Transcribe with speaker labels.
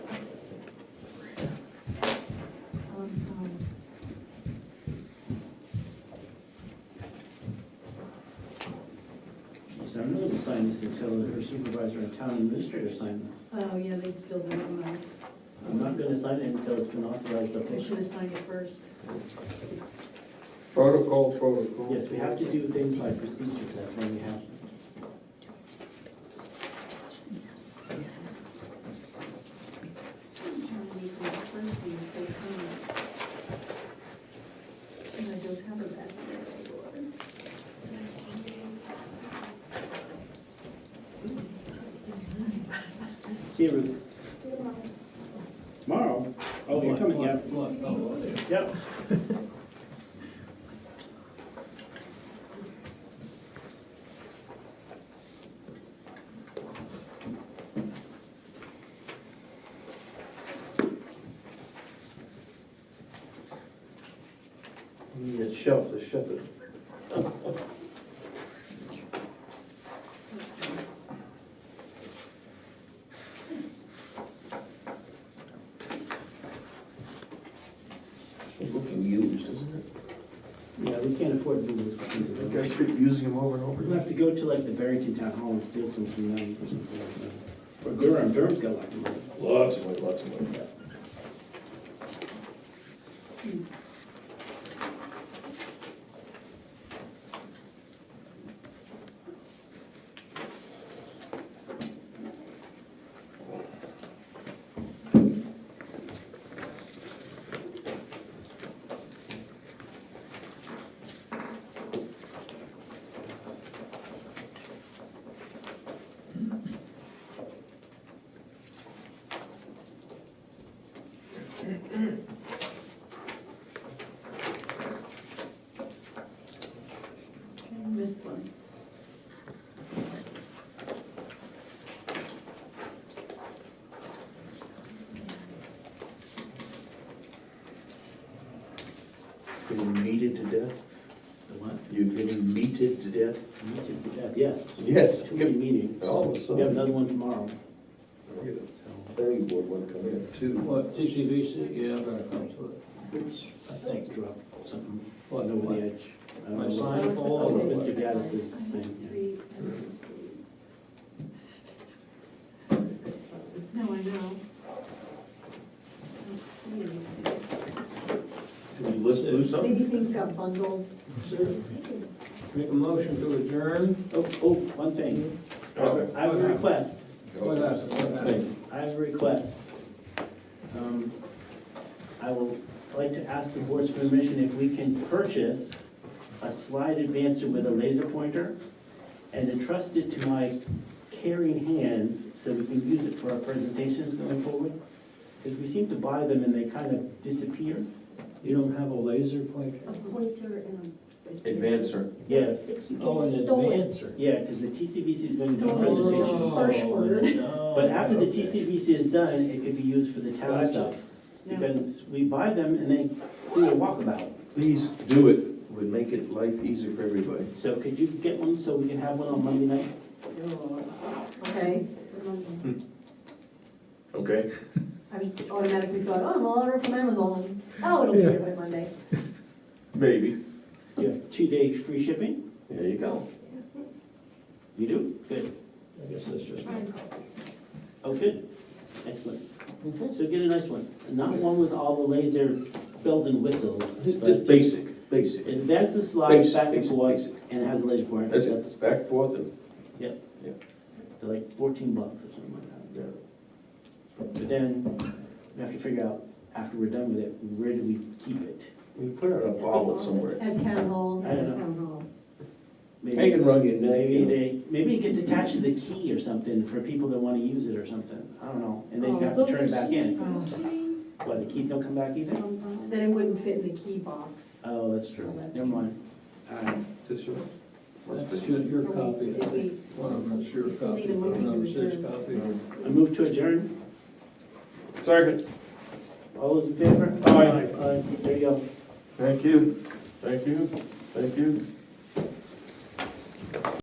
Speaker 1: Um,
Speaker 2: I'm willing to sign this until her supervisor and town administrator sign this.
Speaker 1: Oh, yeah, they filled it out nice.
Speaker 2: I'm not gonna sign it until it's been authorized
Speaker 1: They should
Speaker 2: officially.
Speaker 1: have signed it first.
Speaker 3: Protocol, protocol.
Speaker 2: Yes, we have to do things by procedures, that's when we have.
Speaker 1: And I don't have a basket.
Speaker 2: See you, Ruth. Tomorrow? Oh, you're coming, yeah. Yep.
Speaker 3: You need a shelf to shut it. It's Looking used, isn't
Speaker 2: Yeah, we can't afford to do those kinds
Speaker 3: it? The
Speaker 2: of
Speaker 3: guys
Speaker 2: things.
Speaker 3: keep using them over and over.
Speaker 2: We'll have to go to like the Barrington Town Hall and steal some from them or something like that. Or Durham, Durham's got lots of money.
Speaker 3: Lots of money, lots of money.
Speaker 1: I missed one.
Speaker 3: Getting meated to death?
Speaker 2: The what?
Speaker 3: You're getting meated to death?
Speaker 2: Meeting to death, yes.
Speaker 3: Yes.
Speaker 2: Too many meetings.
Speaker 3: All of a
Speaker 2: We have
Speaker 3: sudden.
Speaker 2: another one tomorrow, Oh, so.
Speaker 3: Planning board one coming in too.
Speaker 4: What, TCVC, yeah, I'm gonna come to it,
Speaker 2: Which
Speaker 4: I think.
Speaker 2: drop something
Speaker 4: What,
Speaker 2: over the
Speaker 4: what?
Speaker 2: edge. I don't
Speaker 4: My
Speaker 2: know.
Speaker 4: sign?
Speaker 1: Oh, it's
Speaker 4: Oh,
Speaker 1: a-
Speaker 2: Mr. Gaddis's
Speaker 1: I have
Speaker 2: thing, yeah.
Speaker 1: three of these sleeves. No, I know. I don't see anything.
Speaker 3: Did you listen, lose something?
Speaker 1: Maybe things got bundled.
Speaker 4: Make a motion to adjourn?
Speaker 2: Oh, oh, one thing.
Speaker 3: Okay.
Speaker 2: I have a request.
Speaker 4: What happened, what happened?
Speaker 2: I have a request. Um, I will like to ask the board's permission if we can purchase a slide advancer with a laser pointer and entrust it to my caring hands so we can use it for our presentations going forward. Because we seem to buy them and they kind of disappear.
Speaker 4: You don't have a laser pointer?
Speaker 1: A pointer and a.
Speaker 3: Advancer.
Speaker 2: Yes,
Speaker 1: It keeps
Speaker 4: Oh, an
Speaker 1: stolen.
Speaker 4: advancer.
Speaker 2: yeah, because the TCVC is going to do
Speaker 1: Stolen.
Speaker 2: presentations.
Speaker 4: Oh,
Speaker 1: Harsh word.
Speaker 2: But after the TCVC is done, it could be used for the town
Speaker 4: Gotcha.
Speaker 2: stuff.
Speaker 1: Yeah.
Speaker 2: Because we buy them and they do a walkabout.
Speaker 3: Please do it, would make it life easier for everybody.
Speaker 2: So could you get one so we can have one on Monday night?
Speaker 1: Okay.
Speaker 3: Okay.
Speaker 1: I just automatically thought, oh, I'm all order from Amazon. Oh, it'll be here by Monday.
Speaker 3: Maybe.
Speaker 2: You have two-day free shipping?
Speaker 3: There you go.
Speaker 2: You do? Good.
Speaker 4: I guess that's just.
Speaker 2: Oh, good. Excellent. So get a nice one. Not one with all the laser bells and whistles.
Speaker 3: Just
Speaker 2: but
Speaker 3: just basic, basic.
Speaker 2: Invents a slide
Speaker 3: Basic,
Speaker 2: back and
Speaker 3: basic,
Speaker 2: forth
Speaker 3: basic.
Speaker 2: and has a laser pointer.
Speaker 3: That's it, back forth and,
Speaker 2: They're like fourteen bucks or something like that.
Speaker 3: yeah.
Speaker 2: But then we have to figure out, after we're done with it, where do we keep it?
Speaker 3: We put it in a bottle somewhere.
Speaker 1: At town hall,
Speaker 2: I don't
Speaker 1: at
Speaker 2: know.
Speaker 1: town hall.
Speaker 3: Hang
Speaker 2: Maybe,
Speaker 3: it around your neck,
Speaker 2: maybe
Speaker 3: you know.
Speaker 2: they, maybe it gets attached to the key or something for people that wanna use it or something, I don't know, and then you
Speaker 1: Oh,
Speaker 2: have to
Speaker 1: those
Speaker 2: turn it
Speaker 1: are
Speaker 2: back in.
Speaker 1: Then
Speaker 2: Why, the keys don't come back either?
Speaker 1: it wouldn't fit in the key box.
Speaker 2: Oh, that's true,
Speaker 1: Oh, that's
Speaker 2: never mind. Alright,
Speaker 3: This one?
Speaker 4: That's your, your copy, I
Speaker 1: Did we-
Speaker 4: think. One of them's your
Speaker 1: We still
Speaker 4: copy,
Speaker 1: need a
Speaker 4: one of
Speaker 1: motion to
Speaker 4: them's his
Speaker 1: adjourn.
Speaker 4: copy.
Speaker 2: I move to adjourn,
Speaker 3: Second.
Speaker 2: all those in favor?
Speaker 3: Aye.
Speaker 2: Aye, there you go.
Speaker 3: Thank you, thank you, thank you.